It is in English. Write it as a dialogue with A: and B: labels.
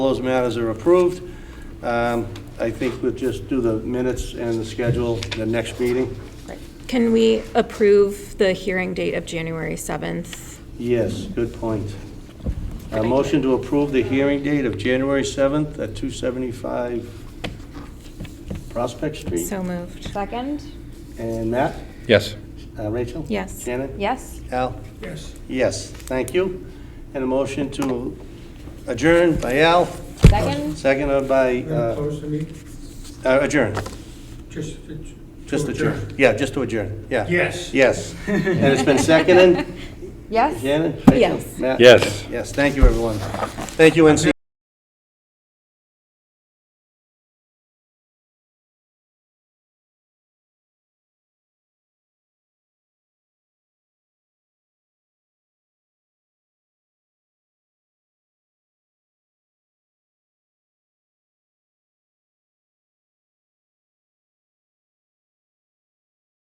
A: All those matters are approved. Um, I think we'll just do the minutes and the schedule, the next meeting.
B: Can we approve the hearing date of January 7th?
A: Yes, good point. A motion to approve the hearing date of January 7th at 275 Prospect Street.
B: So moved.
C: Second?
A: And Matt,
D: Yes.
A: Uh, Rachel?
B: Yes.
A: Shannon?
C: Yes.
A: Al? Yes. Yes, thank you. And a motion to adjourn by Al,
C: Second?
A: seconded by,
E: We're gonna
A: uh,
E: close the meeting?
A: uh, adjourn,
E: Just. to- to
A: just adjourn.
E: adjourn.
A: Yeah, just to adjourn, yeah.
E: Yes.
A: Yes. And it's been seconded?
C: Yes?
A: Shannon? Rachel?
B: Yes.
A: Matt?
D: Yes.
A: Yes, thank you, everyone. Thank you, NC.